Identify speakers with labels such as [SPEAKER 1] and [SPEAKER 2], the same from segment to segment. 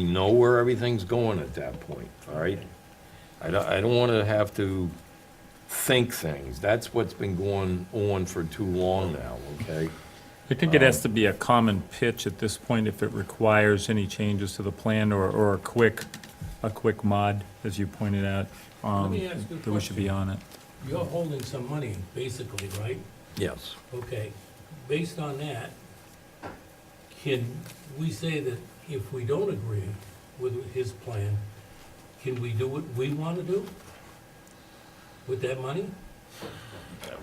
[SPEAKER 1] We know where everything's going at that point, all right? I don't, I don't want to have to think things. That's what's been going on for too long now, okay?
[SPEAKER 2] I think it has to be a common pitch at this point if it requires any changes to the plan or, or a quick, a quick mod, as you pointed out. um,
[SPEAKER 3] me ask you a
[SPEAKER 2] That we should be on it.
[SPEAKER 3] You're holding some money, basically, right?
[SPEAKER 1] Yes.
[SPEAKER 3] Okay, based on that, can we say that if we don't agree with his plan, can we do what we want to do with that money?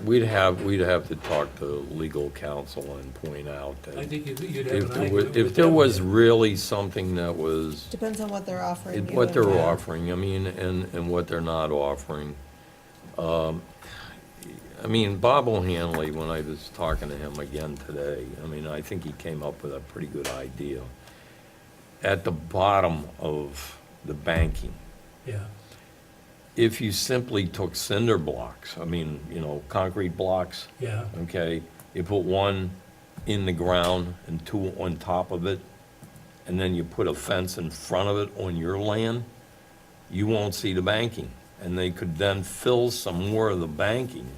[SPEAKER 1] We'd have, we'd have to talk to legal counsel and point out
[SPEAKER 3] I
[SPEAKER 1] that
[SPEAKER 3] think you'd you'd have
[SPEAKER 1] if
[SPEAKER 3] an
[SPEAKER 1] there
[SPEAKER 3] argument
[SPEAKER 1] was,
[SPEAKER 3] with
[SPEAKER 1] if there
[SPEAKER 3] them.
[SPEAKER 1] was really something that was,
[SPEAKER 4] Depends on what they're offering
[SPEAKER 1] it-
[SPEAKER 4] you.
[SPEAKER 1] what
[SPEAKER 4] and
[SPEAKER 1] they're
[SPEAKER 4] when.
[SPEAKER 1] offering, I mean, and, and what they're not offering. Um, I mean, Bob O'Hanley, when I was talking to him again today, I mean, I think he came up with a pretty good idea. At the bottom of the banking,
[SPEAKER 3] Yeah,
[SPEAKER 1] if you simply took cinder blocks, I mean, you know, concrete blocks,
[SPEAKER 3] yeah,
[SPEAKER 1] okay? You put one in the ground and two on top of it, and then you put a fence in front of it on your land, you won't see the banking. And they could then fill some more of the banking,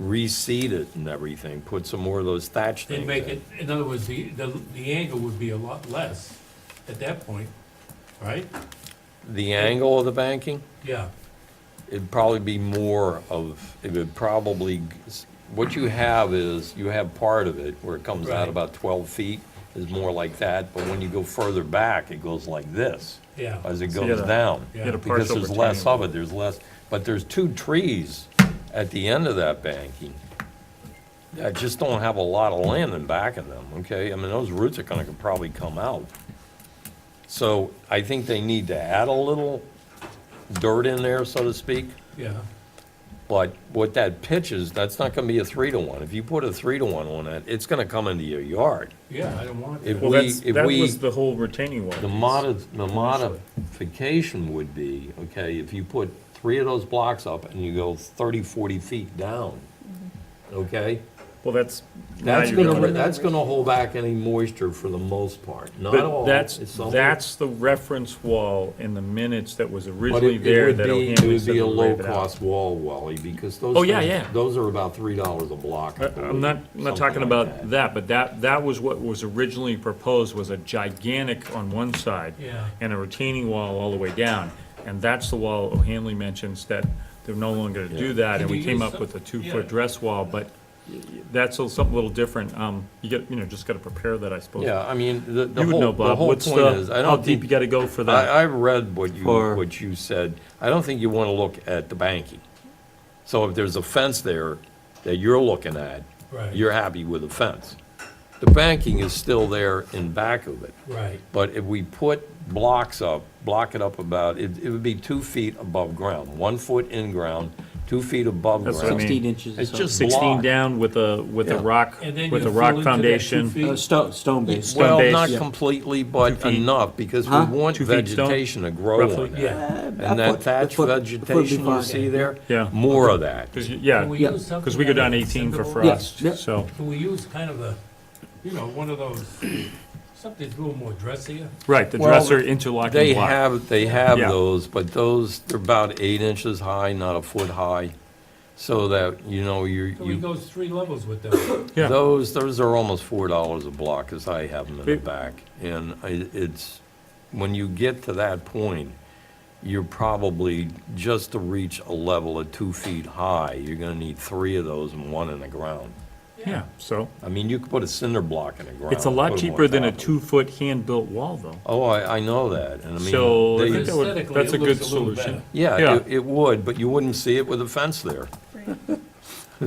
[SPEAKER 1] reseed it and everything, put some more of those thatch things
[SPEAKER 3] they'd
[SPEAKER 1] in.
[SPEAKER 3] make it, in other words, the, the the angle would be a lot less at that point, right?
[SPEAKER 1] The angle of the banking?
[SPEAKER 3] Yeah,
[SPEAKER 1] it'd probably be more of, it would probably, what you have is, you have part of it where it comes out
[SPEAKER 3] Right.
[SPEAKER 1] about 12 feet, is more like that, but when you go further back, it goes like this,
[SPEAKER 3] yeah,
[SPEAKER 1] as it
[SPEAKER 2] So you
[SPEAKER 1] goes
[SPEAKER 2] had a-
[SPEAKER 1] down.
[SPEAKER 3] you had a
[SPEAKER 1] Because
[SPEAKER 2] partial
[SPEAKER 1] there's less
[SPEAKER 2] retaining
[SPEAKER 1] of it, there's less, but there's two trees at the end of that banking that just don't have a lot of land in back of them, okay? I mean, those roots are gonna probably come out. So I think they need to add a little dirt in there, so to speak.
[SPEAKER 3] yeah,
[SPEAKER 1] But what that pitches, that's not gonna be a three to one. If you put a three to one on it, it's gonna come into your yard.
[SPEAKER 3] yeah, I don't want
[SPEAKER 1] If
[SPEAKER 3] that.
[SPEAKER 2] Well,
[SPEAKER 1] we-
[SPEAKER 2] that's,
[SPEAKER 1] if
[SPEAKER 2] that
[SPEAKER 1] we-
[SPEAKER 2] was the whole retaining wall.
[SPEAKER 1] The
[SPEAKER 2] piece.
[SPEAKER 1] modi, the modification would be, okay, if you put three of those blocks up and you go 30, 40 feet down, okay?
[SPEAKER 2] Well, that's. now
[SPEAKER 1] That's
[SPEAKER 2] you're
[SPEAKER 1] gonna,
[SPEAKER 2] going-
[SPEAKER 1] that's gonna hold back any moisture for the most part, not all.
[SPEAKER 2] But that's,
[SPEAKER 1] it's some-
[SPEAKER 2] that's the reference wall in the minutes that was
[SPEAKER 1] But
[SPEAKER 2] originally
[SPEAKER 1] it- it
[SPEAKER 2] there
[SPEAKER 1] would
[SPEAKER 2] that
[SPEAKER 1] be, it
[SPEAKER 2] O'Hanley
[SPEAKER 1] would
[SPEAKER 2] said
[SPEAKER 1] be a
[SPEAKER 2] would waive it out.
[SPEAKER 1] low-cost wall, Wally, because those.
[SPEAKER 2] Oh, yeah,
[SPEAKER 1] things-
[SPEAKER 2] yeah.
[SPEAKER 1] Those are about three dollars a block. I
[SPEAKER 2] I- Uh, I'm not, I'm not
[SPEAKER 1] believe,
[SPEAKER 2] talking
[SPEAKER 1] something like
[SPEAKER 2] about that, but that, that was what was originally proposed, was a gigantic on one side.
[SPEAKER 3] Yeah.
[SPEAKER 2] And a retaining wall all the way down, and that's the wall O'Hanley mentions that they're no longer gonna do that, and we
[SPEAKER 3] Could you
[SPEAKER 2] came
[SPEAKER 3] use
[SPEAKER 2] up
[SPEAKER 3] some-
[SPEAKER 2] with a
[SPEAKER 3] yeah.
[SPEAKER 2] two-foot dress wall, but y- y- that's a- something a little different, um, you get, you know, just gotta prepare that, I suppose.
[SPEAKER 1] Yeah, I mean, the, the
[SPEAKER 2] You would
[SPEAKER 1] whole,
[SPEAKER 2] know,
[SPEAKER 1] the
[SPEAKER 2] Bob,
[SPEAKER 1] whole
[SPEAKER 2] what's
[SPEAKER 1] point is,
[SPEAKER 2] the,
[SPEAKER 1] I
[SPEAKER 2] how
[SPEAKER 1] don't
[SPEAKER 2] deep you
[SPEAKER 1] think,
[SPEAKER 2] gotta go for that?
[SPEAKER 1] I, I read what you,
[SPEAKER 2] For-
[SPEAKER 1] what you said. I don't think you want to look at the banking. So if there's a fence there that you're looking at,
[SPEAKER 3] Right.
[SPEAKER 1] you're happy with the fence. The banking is still there in back of it.
[SPEAKER 3] Right,
[SPEAKER 1] But if we put blocks up, block it up about, it, it would be two feet above ground, one foot in ground, two feet above
[SPEAKER 2] That's what I
[SPEAKER 1] ground.
[SPEAKER 2] mean.
[SPEAKER 5] 16 inches or
[SPEAKER 1] It's
[SPEAKER 5] something.
[SPEAKER 1] just
[SPEAKER 2] Sixteen
[SPEAKER 1] block.
[SPEAKER 2] down with a, with a
[SPEAKER 1] Yeah.
[SPEAKER 2] rock,
[SPEAKER 3] and then you
[SPEAKER 2] with a
[SPEAKER 3] fill into
[SPEAKER 2] rock
[SPEAKER 3] that two
[SPEAKER 2] foundation.
[SPEAKER 3] feet.
[SPEAKER 5] Uh, Stone, stone base.
[SPEAKER 1] Well,
[SPEAKER 2] base.
[SPEAKER 1] not
[SPEAKER 2] Yeah.
[SPEAKER 1] completely, but
[SPEAKER 2] Two feet.
[SPEAKER 1] enough, because we
[SPEAKER 5] Huh?
[SPEAKER 1] want
[SPEAKER 2] Two feet stone,
[SPEAKER 1] vegetation to grow
[SPEAKER 2] roughly.
[SPEAKER 1] on that.
[SPEAKER 3] Yeah.
[SPEAKER 1] And that thatch vegetation you see there?
[SPEAKER 2] Yeah.
[SPEAKER 1] More of that.
[SPEAKER 2] Cause, you- yeah,
[SPEAKER 3] Can we
[SPEAKER 5] Yeah.
[SPEAKER 3] use something
[SPEAKER 2] cause we go down
[SPEAKER 3] that is
[SPEAKER 2] eighteen for
[SPEAKER 3] acceptable?
[SPEAKER 2] frost,
[SPEAKER 5] Yeah.
[SPEAKER 2] so,
[SPEAKER 3] Can we use kind of a, you know, one of those, something that's a little more dressier?
[SPEAKER 2] right, the
[SPEAKER 1] Well,
[SPEAKER 2] dresser interlocking block.
[SPEAKER 1] They have, they have
[SPEAKER 2] Yeah.
[SPEAKER 1] those, but those, they're about eight inches high, not a foot high, so that, you know, you're,
[SPEAKER 3] So we
[SPEAKER 1] you,
[SPEAKER 3] goes three levels with them.
[SPEAKER 2] Yeah.
[SPEAKER 1] those, those are almost four dollars a block, as I have them in the
[SPEAKER 2] It-
[SPEAKER 1] back. And I- it's, when you get to that point, you're probably, just to reach a level of two feet high, you're gonna need three of those and one in the ground.
[SPEAKER 2] Yeah, so,
[SPEAKER 1] I mean, you could put a cinder block in the ground.
[SPEAKER 2] it's a
[SPEAKER 1] put
[SPEAKER 2] lot
[SPEAKER 1] 'em on
[SPEAKER 2] cheaper than a
[SPEAKER 1] top of it.
[SPEAKER 2] two-foot hand-built wall, though.
[SPEAKER 1] Oh, I, I know that, and I mean.
[SPEAKER 2] So, I
[SPEAKER 1] they-
[SPEAKER 2] think that would,
[SPEAKER 3] Aesthetically,
[SPEAKER 2] that's a
[SPEAKER 3] it
[SPEAKER 2] good
[SPEAKER 3] looks a little
[SPEAKER 2] solution.
[SPEAKER 3] better.
[SPEAKER 1] Yeah,
[SPEAKER 2] Yeah.
[SPEAKER 1] it, it would, but you wouldn't see it with a fence there.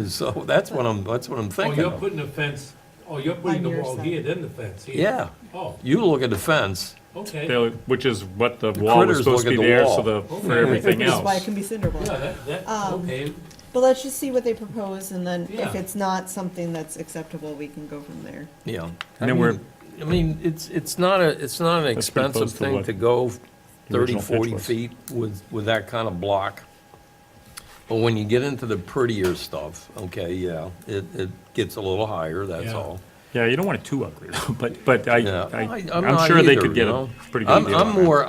[SPEAKER 1] So that's what I'm, that's what I'm
[SPEAKER 3] Oh,
[SPEAKER 1] thinking
[SPEAKER 3] you're
[SPEAKER 1] of.
[SPEAKER 3] putting a fence, oh, you're putting
[SPEAKER 4] On
[SPEAKER 3] the
[SPEAKER 4] your
[SPEAKER 3] wall
[SPEAKER 4] side.
[SPEAKER 3] here, then the fence here?
[SPEAKER 1] Yeah,
[SPEAKER 3] Oh,
[SPEAKER 1] you look at the fence,
[SPEAKER 3] okay. Yeah,
[SPEAKER 2] They'll- Which is what the wall was
[SPEAKER 1] critters look
[SPEAKER 2] supposed to be
[SPEAKER 1] at the
[SPEAKER 2] there,
[SPEAKER 1] wall.
[SPEAKER 2] so the,
[SPEAKER 3] Oh,
[SPEAKER 2] for
[SPEAKER 3] yeah.
[SPEAKER 2] everything
[SPEAKER 4] Which is why it
[SPEAKER 2] else.
[SPEAKER 4] can be cinder block.
[SPEAKER 3] that, that,
[SPEAKER 4] Um,
[SPEAKER 3] okay,
[SPEAKER 4] But let's just see what they propose, and then if
[SPEAKER 3] Yeah.
[SPEAKER 4] it's not something that's acceptable, we can go from there.
[SPEAKER 1] yeah. I
[SPEAKER 2] And then we're,
[SPEAKER 1] mean, I mean, it's, it's not a, it's not an
[SPEAKER 2] That's pretty
[SPEAKER 1] expensive
[SPEAKER 2] close to
[SPEAKER 1] thing
[SPEAKER 2] what
[SPEAKER 1] to go
[SPEAKER 2] the
[SPEAKER 1] 30,
[SPEAKER 2] original
[SPEAKER 1] 40
[SPEAKER 2] pitch was.
[SPEAKER 1] feet with, with that kind of block. But when you get into the prettier stuff, okay, yeah, it, it gets a little higher, that's
[SPEAKER 3] Yeah.
[SPEAKER 1] all.
[SPEAKER 2] Yeah, you don't want it too ugly, though, but, but I,
[SPEAKER 1] Yeah.
[SPEAKER 2] I-
[SPEAKER 1] I- I'm
[SPEAKER 2] I'm
[SPEAKER 1] not
[SPEAKER 2] sure they
[SPEAKER 1] either,
[SPEAKER 2] could get
[SPEAKER 1] you
[SPEAKER 2] a
[SPEAKER 1] know?
[SPEAKER 2] pretty good
[SPEAKER 1] I'm,
[SPEAKER 2] deal
[SPEAKER 1] I'm
[SPEAKER 2] on that.
[SPEAKER 1] more,